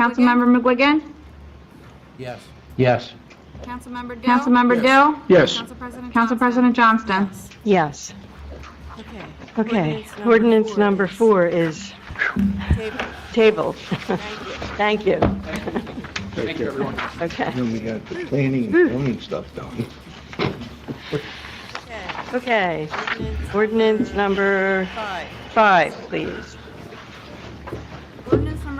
Councilmember McGuigan? Yes. Yes. Councilmember Dill? Councilmember Dill? Yes. Council President Johnston? Yes. Okay. Okay. Ordinance Ordinance number four is tabled. Thank you. Thank you, everyone. Okay. Then we got the planning and zoning stuff done. Okay. Ordinance number Five. five, please.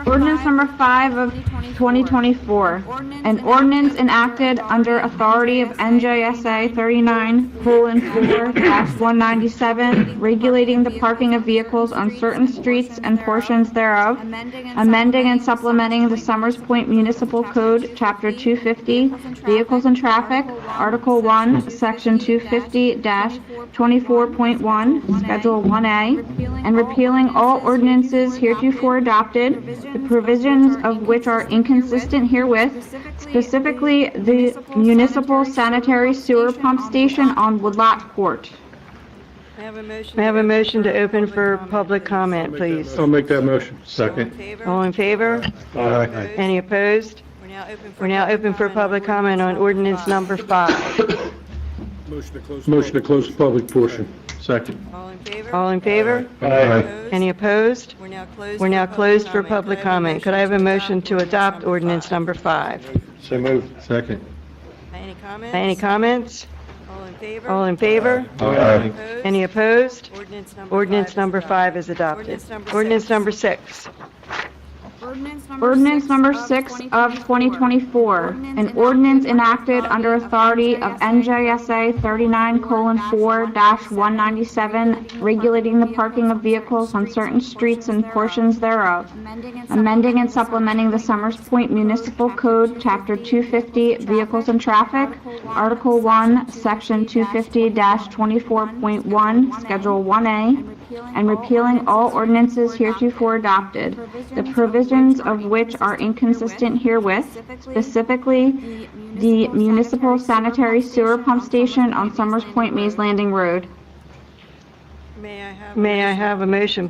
Ordinance number five of 2024, an ordinance enacted under authority of NJSA 39:4-197, regulating the parking of vehicles on certain streets and portions thereof, amending and supplementing the Summers Point Municipal Code, Chapter 250, Vehicles and Traffic, Article 1, Section 250-24.1, Schedule 1A, and repealing all ordinances heretofore adopted, the provisions of which are inconsistent herewith, specifically the municipal sanitary sewer pump station on Woodlot Court. May I have a motion? May I have a motion to open for public please? comment, please? I'll make that motion. All in Second. favor? All in favor? Aye. Opposed? Any opposed? We're now open for. We're now open for public comment on ordinance number five. Motion to close the public portion. Second. All in favor? All in favor? Aye. Opposed? Any opposed? We're now closed. We're for now public closed for comment. public comment. Could I have a motion to adopt ordinance five? number five? So moved. Second. Any comments? Any comments? All in favor? All in favor? Aye. Opposed? Any opposed? Ordinance number five. Ordinance is number five adopted. is adopted. Ordinance number Ordinance six. number six. Ordinance number six of 2024, an ordinance enacted under authority of NJSA 39:4-197, regulating the parking of vehicles on certain streets and portions thereof, amending and supplementing the Summers Point Municipal Code, Chapter 250, Vehicles and Traffic, Article 1, Section 250-24.1, Schedule 1A, and repealing all ordinances heretofore adopted, the provisions of which are inconsistent herewith, specifically the municipal sanitary sewer pump station on Summers Point Maze Landing Road. May I have? a May I motion? have a motion,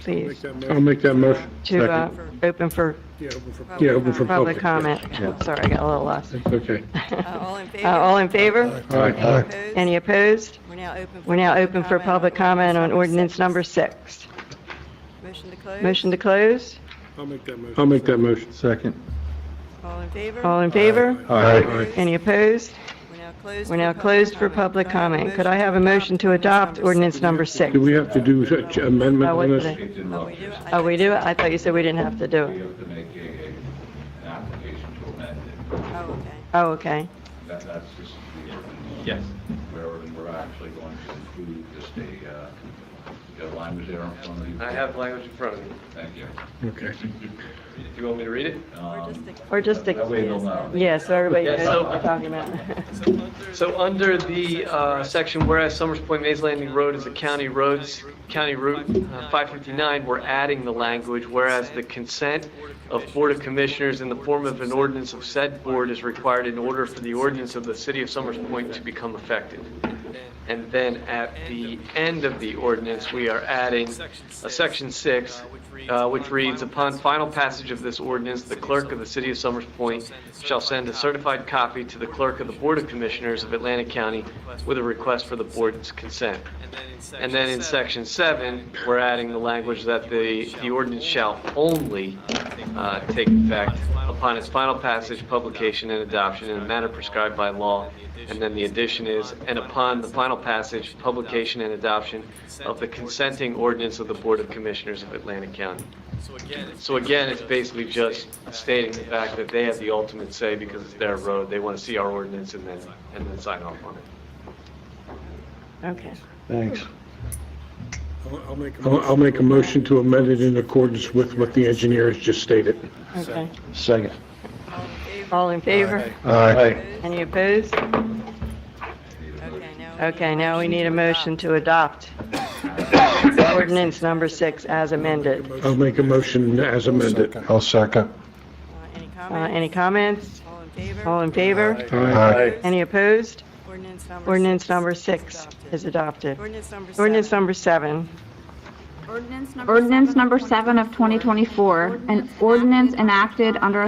please, I'll make that motion. to uh, Second. open for Yeah, open for public public. comment? Sorry, I got a little lost. Okay. Uh, All in favor? Uh, All in favor? Aye. Opposed? Any opposed? We're now open. for We're now public open for comment on public comment on ordinance six. number six. Motion to close. Motion to close? I'll make that motion. Second. All in favor? All in favor? Aye. Any opposed? We're now closed. We're now for public closed for comment. public Could comment. Could I have a I have a motion to adopt ordinance number six? Do we have to do such amendment Oh, on wait a this? minute. Oh, we do? I Oh, we think do? it? I thought you said we didn't have to do We it. have to make a, a- an application to amend so. it. Oh, Oh, okay. okay. That, that's just the ordinance. Yes. Where we're actually going to include just a, uh, you got language there in front of you? I have language in front of me. Thank you. Okay. Do you want me to read it? Or Um, just the- Or just That a, way they'll know. yeah, so everybody Yeah, knows so- what we're talking about. So under the uh, section, whereas Summers Point Maze Landing Road is a county roads, county route uh, 559, we're adding the language, whereas the consent of Board of Commissioners in the form of an ordinance of said board is required in order for the ordinance of the city of Summers Point to become effective. And then at the end of the ordinance, we are adding a section six, uh, which reads, upon final passage of this ordinance, the clerk of the city of Summers Point shall send a certified copy to the clerk of the Board of Commissioners of Atlantic County with a request for the board's consent. And then in section seven, we're adding the language that the, the ordinance shall only, uh, take effect upon its final passage, publication, and adoption in a manner prescribed by law. And then the addition is, and upon the final passage, publication, and adoption of the consenting ordinance of the Board of Commissioners of Atlantic County. So again, it's basically just stating the fact that they have the ultimate say because it's their road. They want to see our ordinance and then, and then sign off on it. Okay. Thanks. I'll, I'll make a motion to amend it in accordance with what the engineer has just stated. Okay. Second. All in favor? All in favor? Aye. Opposed? Any opposed? Okay, now. we Okay, a now we need a motion to adopt ordinance number six as amended. I'll make a motion as amended. I'll second. Uh, Any Uh, comments? Any comments? All in favor? All in favor? Aye. Any opposed? Ordinance number. Ordinance six number is six adopted. is adopted. Ordinance number Ordinance number seven. seven. Ordinance number seven of 2024, an ordinance enacted under